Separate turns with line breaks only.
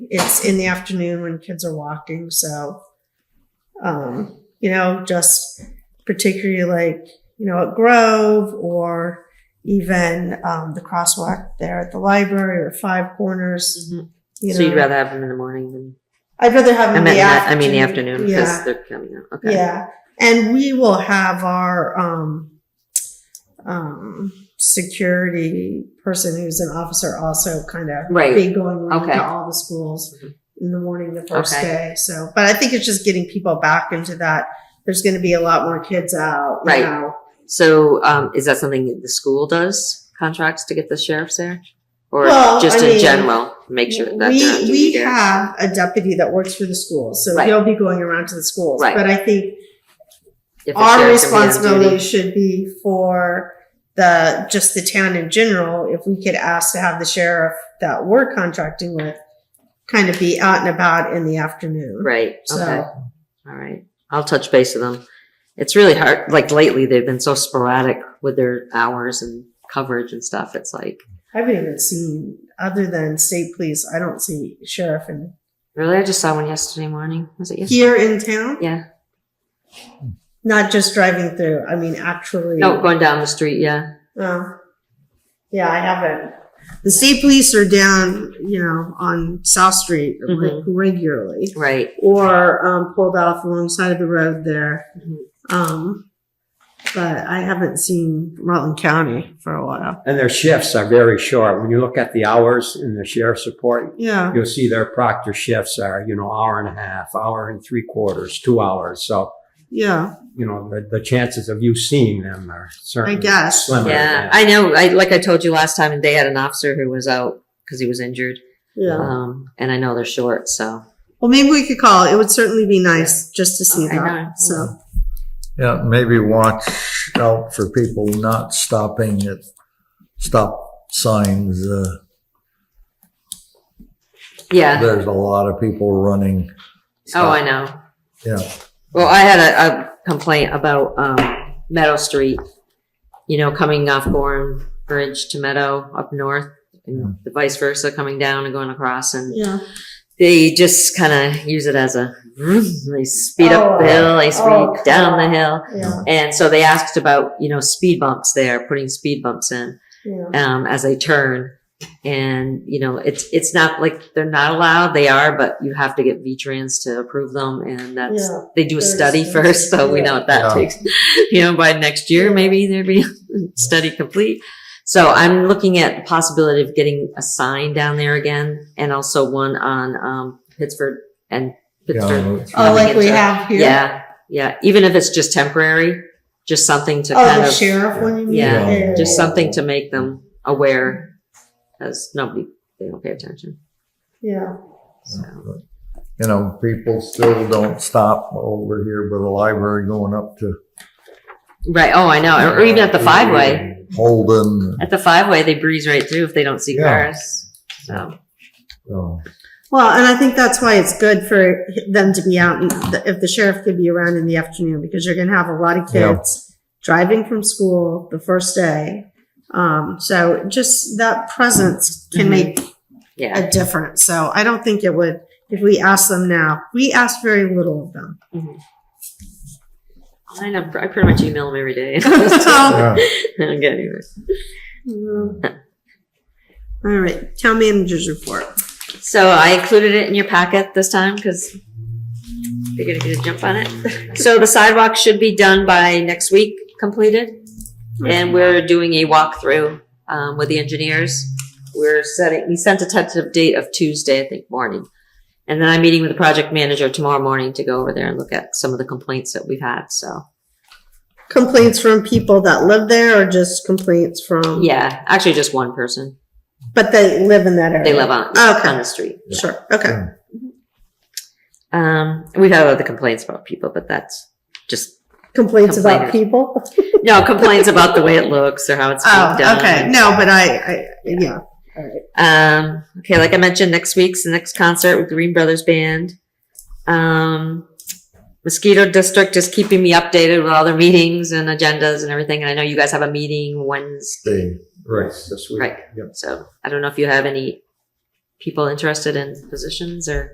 it's in the afternoon when kids are walking. So, um, you know, just particularly like, you know, at Grove or even um, the crosswalk there at the library or Five Corners. You
So
know,
you'd rather have them in the morning than,
I'd rather have
I
them
mean,
in Um, the
I
afternoon.
mean, the afternoon, because
Yeah.
they're coming out, okay.
Yeah. And we will have our um, um, security person who's an officer also kind of
Right.
be going around
Okay.
to all the schools
Mhm.
in the morning the first
Okay.
day. So, but I think it's just getting people back into that. There's going to be a lot more kids out. you
Right.
know.
So, um, is that something that the school does, contracts to get the sheriffs there? Or
Well,
just
I
in
mean,
general, make sure that they're on
we,
duty
we
there?
have a deputy that works for the schools, so
Right.
he'll be going around to the schools.
Right.
But I think
If the
our
sheriff's gonna be on duty.
responsibility should be for the just the town in general. If we could ask to have the sheriff that we're contracting with kind of be out and about in the afternoon,
Right,
So-
okay, all right. I'll touch base with them. It's really hard, like lately, they've been so sporadic with their hours and coverage and stuff. It's like,
I haven't even seen other than state police. I don't see sheriff in
really? I just saw one yesterday morning. Was it yesterday?
here in town.
Yeah.
Not just driving through. I mean, actually.
No, going down the street, yeah.
Oh. Yeah, I haven't. The state police are down, you know, on South Street like
Mm-hmm.
regularly,
Right.
or um, pulled off alongside of the road there.
Mhm.
Um, but I haven't seen Rutland County for a while.
And their shifts are very short. When you look at the hours in the sheriff's report,
Yeah,
you'll see their proctor shifts are, you know, hour and a half, hour and three quarters, two hours. So,
yeah.
you know, the, the chances of you seeing them are certainly
guess.
slimmer.
Yeah, I know. I like I told you last time, they had an officer who was out because he was injured.
Yeah.
Um, and I know they're short, so
Well, maybe we could call. It would certainly be nice just to see
Okay, no.
that. So,
Yeah, maybe watch out for people not stopping at stop signs. Uh,
yeah.
there's a lot of people running.
Oh, I know.
Yeah.
Well, I had a, a complaint about um, Meadow Street. You know, coming off Gorham Bridge to Meadow up north, and the vice versa, coming down and going across, and
yeah.
they just kind of use it as a. They speed up the hill. They speed
Oh, oh,
down the hill.
Yeah.
And so they asked about, you know, speed bumps there, putting speed bumps in.
Yeah.
um, as they turn. And, you know, it's, it's not like they're not allowed. They are, but you have to get V-Trans to approve them. And that's,
Yeah.
they do a
Very
study
expensive.
first. So we
Yeah.
know what that
Yeah.
takes. You know, by next year, maybe there'd be a study complete. So I'm looking at the possibility of getting a sign down there again and also one on, um, Pittsford and Pittsburgh.
Yeah,
Oh, like we
Into-
have here.
Yeah. Yeah. Even if it's just temporary, just something to
Oh,
kind
the
of.
sheriff one. You mean?
Yeah,
Yeah.
just something to make them aware, as nobody they don't pay attention.
Yeah.
So
you know, people still don't stop over here by the library going up to
right, oh, I know, or even at the five way,
Holden.
at the five way, they breeze right through if they don't see
Yeah.
cars. So
So,
Well, and I think that's why it's good for them to be out, and th- if the sheriff could be around in the afternoon, because you're gonna have a lot of
Yeah.
kids driving from school the first day. Um, so just that presence can
Mhm.
make
yeah,
a difference. So I don't think it would, if we ask them now, we ask very little of them.
I know. I pretty much email them every day. I
Yeah.
yeah.
don't get anywhere. Mm-hmm.
Mm. All right, town manager's report.
So I included it in your packet this time because you're gonna get a jump on it. So the sidewalk should be done by next week, completed. And we're doing a walkthrough, um, with the engineers. We're setting, we sent a tentative date of Tuesday, I think, morning. And then I'm meeting with the project manager tomorrow morning to go over there and look at some of the complaints that we've had, so.
Complaints from people that live there or just complaints from?
Yeah, actually just one person.
But they live in that area?
They live on,
Okay.
on the street.
Sure, okay.
Um, we've had other complaints about people, but that's just
complaints about
Complainers.
people.
No, complaints about the way it looks or how it's being
Oh,
done.
okay. No, but I, I yeah.
Um, okay, like I mentioned, next week's the next concert with Green Brothers Band. Um, Mosquito District is keeping me updated with all their meetings and agendas and everything. And I know you guys have a meeting Wednesday,
They-
Right, this week.
Right.
Yep.
so I don't know if you have any people interested in positions or?